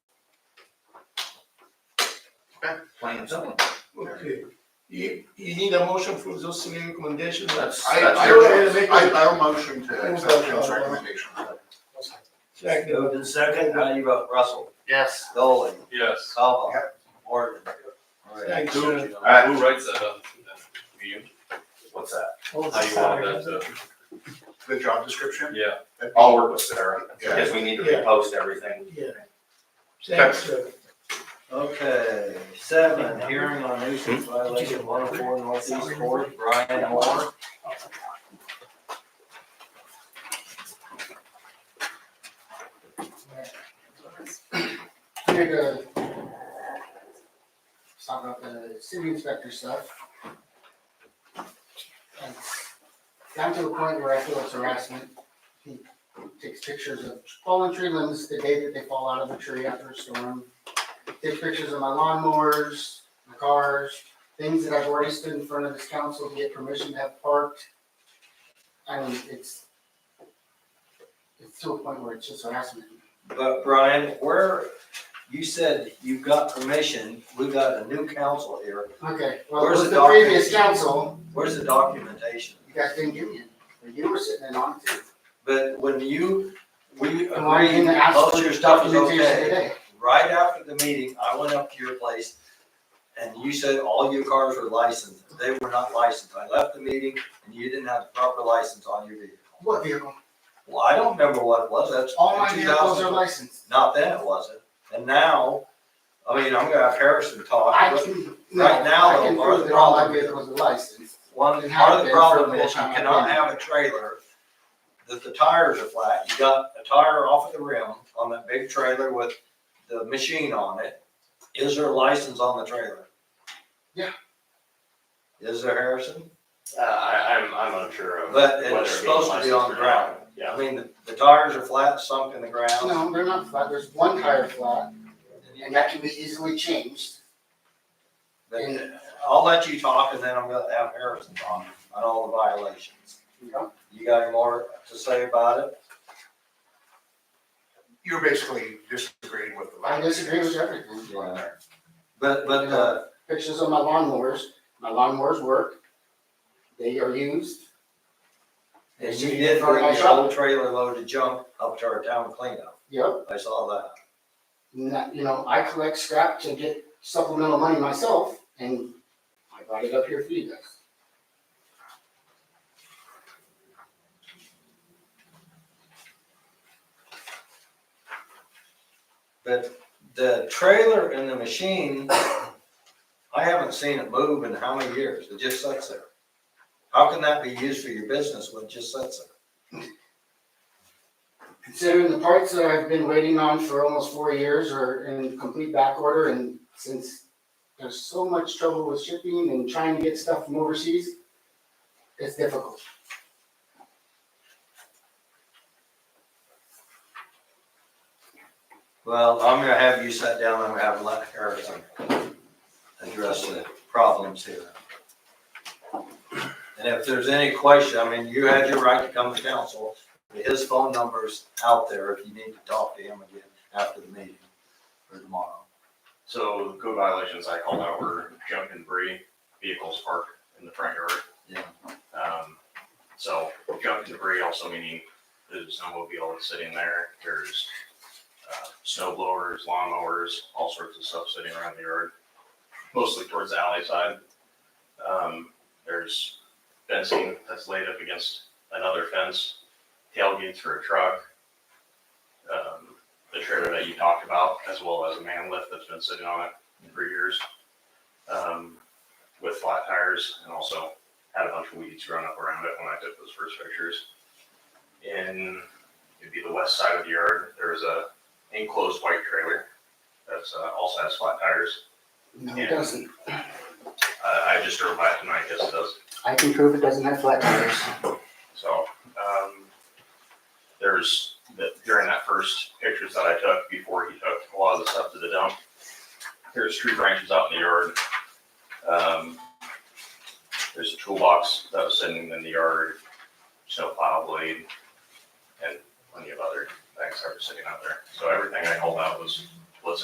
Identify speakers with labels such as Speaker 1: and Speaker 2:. Speaker 1: plain and simple.
Speaker 2: Okay, you, you need a motion for those three recommendations?
Speaker 1: That's-
Speaker 2: I-
Speaker 1: that's
Speaker 2: I
Speaker 1: your
Speaker 2: will
Speaker 1: choice.
Speaker 2: make a-
Speaker 3: I, I'll motion to accept Jim's
Speaker 2: Okay.
Speaker 3: recommendation.
Speaker 2: Second,
Speaker 4: Moved in second, how do you vote, Russell,
Speaker 1: Yes.
Speaker 4: Dolan,
Speaker 5: Yes.
Speaker 4: Cobal, Morgan?
Speaker 2: thanks.
Speaker 5: Who,
Speaker 1: Alright,
Speaker 5: who writes that up? You?
Speaker 1: what's that?
Speaker 5: How you want that to?
Speaker 3: The job description?
Speaker 5: Yeah.
Speaker 1: I'll work with Sarah,
Speaker 3: Yeah.
Speaker 1: because we need to
Speaker 2: Yeah.
Speaker 1: repost everything.
Speaker 2: Yeah. Thanks, sir.
Speaker 4: Okay, seven, hearing on nuisance violation one oh four northeast court, Brian Moore.
Speaker 6: Here to talk about the city inspector stuff. It's Gotten to the point where I feel it's harassment. He takes pictures of fallen tree limbs the day that they fall out of the tree after a storm. Takes pictures of my lawnmowers, my cars, things that I've already stood in front of this council to get permission to have parked. I mean, it's it's to a point where it's just harassment.
Speaker 4: But Brian, where, you said you got permission, we got a new council here,
Speaker 6: Okay, well, it
Speaker 4: Where's
Speaker 6: was
Speaker 4: the
Speaker 6: the previous
Speaker 4: document?
Speaker 6: council.
Speaker 4: where's the documentation?
Speaker 6: You guys didn't give me it, but you were sitting in on it too.
Speaker 4: But when you, we
Speaker 6: And why didn't
Speaker 4: agreed,
Speaker 6: you ask
Speaker 4: most
Speaker 6: for
Speaker 4: of your stuff is
Speaker 6: documentation
Speaker 4: okay.
Speaker 6: today?
Speaker 4: Right after the meeting, I went up to your place and you said all your cars were licensed. They were not licensed. I left the meeting and you didn't have the proper license on your vehicle.
Speaker 6: What vehicle?
Speaker 4: Well, I don't remember what it was. That's.
Speaker 6: All my
Speaker 4: in
Speaker 6: vehicles are
Speaker 4: 2000.
Speaker 6: licensed.
Speaker 4: Not then it wasn't. And now, I mean, I'm gonna have Harrison talk.
Speaker 6: I
Speaker 4: but
Speaker 6: can, no,
Speaker 4: Right now,
Speaker 6: I can
Speaker 4: though, part of
Speaker 6: prove
Speaker 4: the
Speaker 6: that all my
Speaker 4: problem is-
Speaker 6: vehicles are licensed.
Speaker 4: One,
Speaker 6: It
Speaker 4: part
Speaker 6: has
Speaker 4: of the
Speaker 6: been for
Speaker 4: problem
Speaker 6: the
Speaker 4: is you
Speaker 6: whole time I've
Speaker 4: cannot
Speaker 6: been.
Speaker 4: have a trailer that the tires are flat. You got a tire off of the rim on that big trailer with the machine on it. Is there a license on the trailer?
Speaker 6: Yeah.
Speaker 4: Is there Harrison?
Speaker 7: Uh, I, I'm, I'm unsure of.
Speaker 4: But
Speaker 7: whether it
Speaker 4: it's
Speaker 7: being
Speaker 4: supposed to be
Speaker 7: licensed
Speaker 4: on
Speaker 7: or
Speaker 4: the ground.
Speaker 7: not.
Speaker 4: I
Speaker 7: Yeah,
Speaker 4: mean, the, the tires are flat, sunk in the ground.
Speaker 6: No, they're not flat, there's one tire flat,
Speaker 4: And you
Speaker 6: and that can be easily changed.
Speaker 4: Then I'll let you talk and then I'm gonna have Harrison talk on all the violations.
Speaker 6: You know,
Speaker 4: You got any more to say about it?
Speaker 3: You're basically disagreeing with the.
Speaker 6: I disagree with everything.
Speaker 4: But, but, uh,
Speaker 6: Pictures of my lawnmowers, my lawnmowers work, they are used.
Speaker 4: and you did bring your old trailer loaded junk up to our town cleanup.
Speaker 6: Yep,
Speaker 4: I saw that.
Speaker 6: and that, you know, I collect scrap to get supplemental money myself, and I brought it up here for you guys.
Speaker 4: But the trailer and the machine, I haven't seen it move in how many years? It just sits there. How can that be used for your business when it just sits there?
Speaker 6: Considering the parts that I've been waiting on for almost four years are in complete back order and since there's so much trouble with shipping and trying to get stuff from overseas, it's difficult.
Speaker 4: Well, I'm gonna have you sit down and have let Harrison address the problems here. And if there's any question, I mean, you had your right to come to council, his phone number's out there if you need to talk to him again after the meeting or tomorrow.
Speaker 7: so code violations I called out were junk and debris, vehicles parked in the front yard.
Speaker 4: Yeah.
Speaker 7: Um, so junk and debris also meaning there's a snowmobile that's sitting there, there's, uh, snow blowers, lawnmowers, all sorts of stuff sitting around the yard, mostly towards the alley side. Um, there's fencing that's laid up against another fence, tailgates for a truck. Um, the trailer that you talked about, as well as a man lift that's been sitting on it for years. Um, with flat tires and also had a bunch of weeds growing up around it when I took those first pictures. In, it'd be the west side of the yard, there was a enclosed white trailer that's uh, also has flat tires.
Speaker 6: No,
Speaker 7: Yeah.
Speaker 6: it doesn't.
Speaker 7: I, I just drove by it tonight, yes it does.
Speaker 6: I can prove it doesn't have flat tires.
Speaker 7: So, um, there's, the- during that first pictures that I took, before he took a lot of the stuff to the dump, there's tree branches out in the yard. Um, there's a toolbox that was sitting in the yard, snowplow blade, and plenty of other things that were sitting out there. So everything I called out was